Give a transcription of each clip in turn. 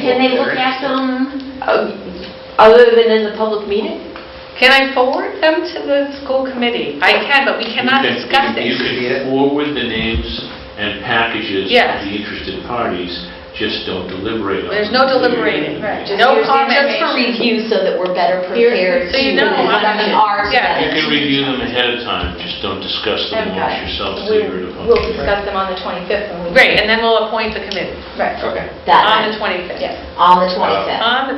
Can they look at them? Um, Other than in the public meeting? Can I forward them to the school committee? I can, but we cannot You discuss can- You it. can forward the names and packages Yes. of the interested parties, just don't deliberate on them. There's no deliberating. Right. Just No here's the- Just for comment. review so that we're better Here's- prepared So to, you know, what I'm- we are yeah. You together. can review them ahead of time, just don't discuss them I've amongst got it. yourselves. so We- you're in a public We'll meeting. discuss them on the 25th when we... Great, and then we'll appoint the committee Right, Okay, on That, the Uh, 25th. yes. on the 25th. On the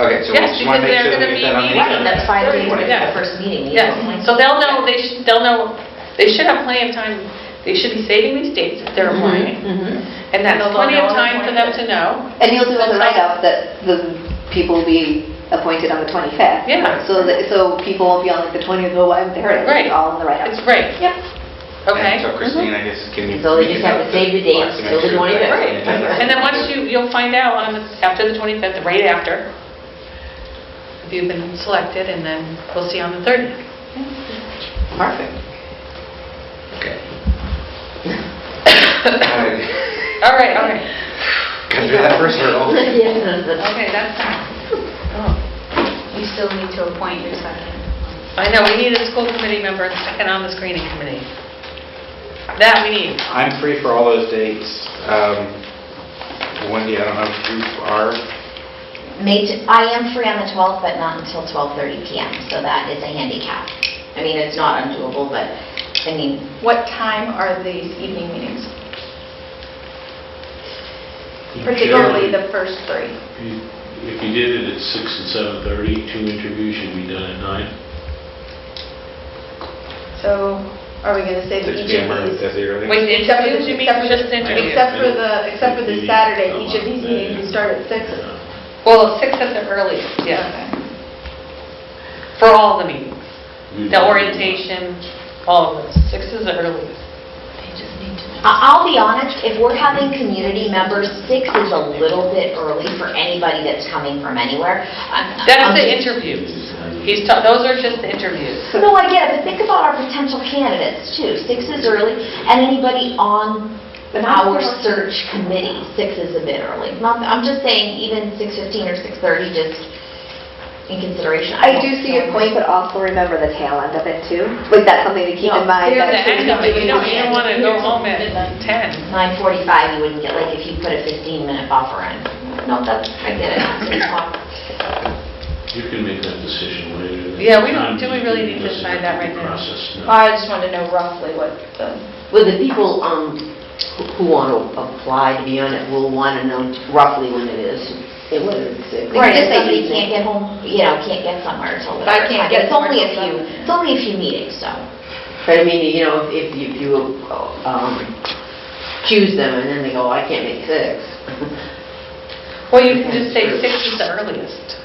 okay, so we just want Yes, because to make they're sure that we get that on gonna be the meeting. Right, agenda. that's five days before Yeah. the first meeting. you Yes, know. so they'll know, they should, they'll know, they should have plenty of time, they should be saving these dates if they're applying, Mhm. and that's plenty of time for them to know. And you'll do as a write-up that the people will be appointed on the 25th. Yeah. So that, so people won't be on like the 20th, oh, I'm there, Right. it's all in the write-up. It's great. Yep. Okay? And so Christine, I guess, can you... So they we just can have to save the box dates to make till the sure that 25th. that's on the agenda. And then once you, you'll find out on, the- after the 25th, right after, if you've been selected, and then we'll see on the 30th. Perfect. Okay. Because All right, all right. we had that first hurdle. Yes. Okay, that's, Oh, You still need to appoint your second. I know, we need a school committee member and second on the screening committee. That we need. I'm free for all those dates. Um, Wendy, I don't know if you are. May, t- I am free on the 12th, but not until 12:30 PM, so that is a handicap. I mean, it's not undoable, but, I mean, What time are these evening meetings? Particularly the first three. You- If you did it at six and 7:30, two interviews should be done at nine. So are we going to say that Six each P.M. of or these... as early. Wait, the Except for the- interviews, you mean, except for the- just the interviews? Except for the, except for the Saturday, each of these meetings you start at six. Well, six at the earliest, yeah, Okay. for all the meetings. We- The orientation, all of those, six is the earliest. I- I'll be honest, if we're having community members, six is a little bit early for anybody that's coming from anywhere. I'm- I'm That's the just- interviews. He's, ta- those are just the interviews. No, I get it, but think about our potential candidates too. Six is early, and anybody on our search committee, six is a bit early. Not- I'm just saying, even 6:15 or 6:30, just in consideration. I do see your point, but also remember the tail end of it too. Like, that's something to keep No, in mind. The that end of it, you don't, you don't want to go home at 10. 9:45, you wouldn't get, like, if you put a 15-minute buffer in. No, that's, I get it. It's fine. You can make that decision later. Yeah, we don't- Time do we really need to listen decide that the right now? process, no. I just wanted to know roughly what the... Well, the people um, who- who want to apply to be on it will want to know roughly when it is, and whether it's... a- Right, if somebody can't get home, you know, can't get somewhere until If I whatever can't time. get It's only a somewhere till few, seven. it's only a few meetings, so. But I mean, you know, if if you- if you um, choose them, and then they go, "Oh, I can't make six. Well, you can just say six is the earliest.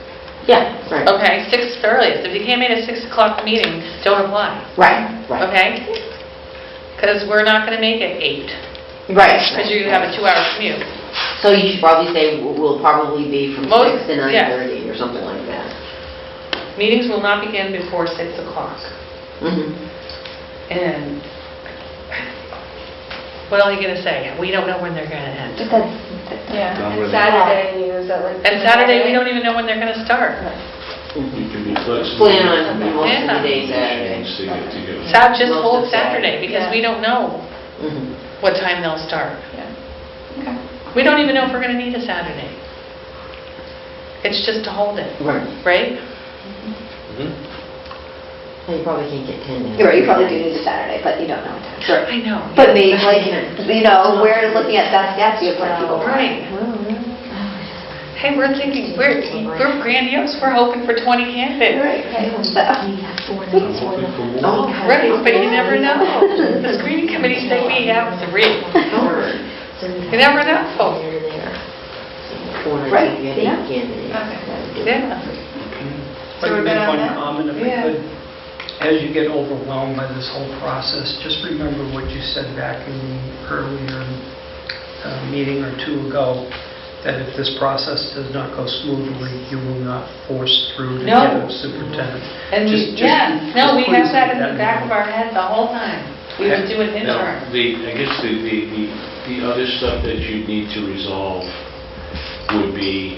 Yeah, right, Okay, six is the earliest. If you came in at 6 o'clock meeting, don't apply, right, right. okay? Because we're not going to make it 8, Right. because you have a two-hour commute. So you should probably say, "We'll- we'll probably be from Most- six to yeah. 9:30 or something like that. Meetings will not begin before 6 o'clock. Mhm. And what are you going to say? We don't know when they're going to end. Yeah, Don't and really- Saturday is at like... And Saturday, we don't even know when they're going to start. You can be flexible. Plan on most of the days Saturday. Change the get together. Sat, just Most hold of Saturday, Saturday. because we Yeah. don't know Mhm. what time they'll start. Yeah. Okay. We don't even know if we're going to need a Saturday. It's just to hold it, Right. right? Hmm? Mhm. Well, You probably can't get 10 now. You're right, you probably do need a Saturday, but you don't know. Sure. I know. But maybe, like, you know, we're looking at best guess, you have plenty of people. Right. Hey, we're thinking, we're we're grandiose, we're hoping for 20 candidates. Right, okay. uh, We have four I'm minutes, four hoping minutes. for one. Oh, okay. Right, but you never know. The screening committee said we have three. You never know. Here, there. Corner, Right, you get yeah. eight Okay. candidates. That would do it. Yeah. So we're good If I could make on one that? comment, if I Yeah. could. As you get overwhelmed by this whole process, just remember what you said back in the earlier uh, meeting or two ago, that if this process does not go smoothly, you will not force through to No. get a superintendent. And we, Just- just- yeah, no, just we please have that keep in the in back mind. of our head the whole time. We would do an Now, interim. the, I guess the, the, the- the other stuff that you need to resolve would be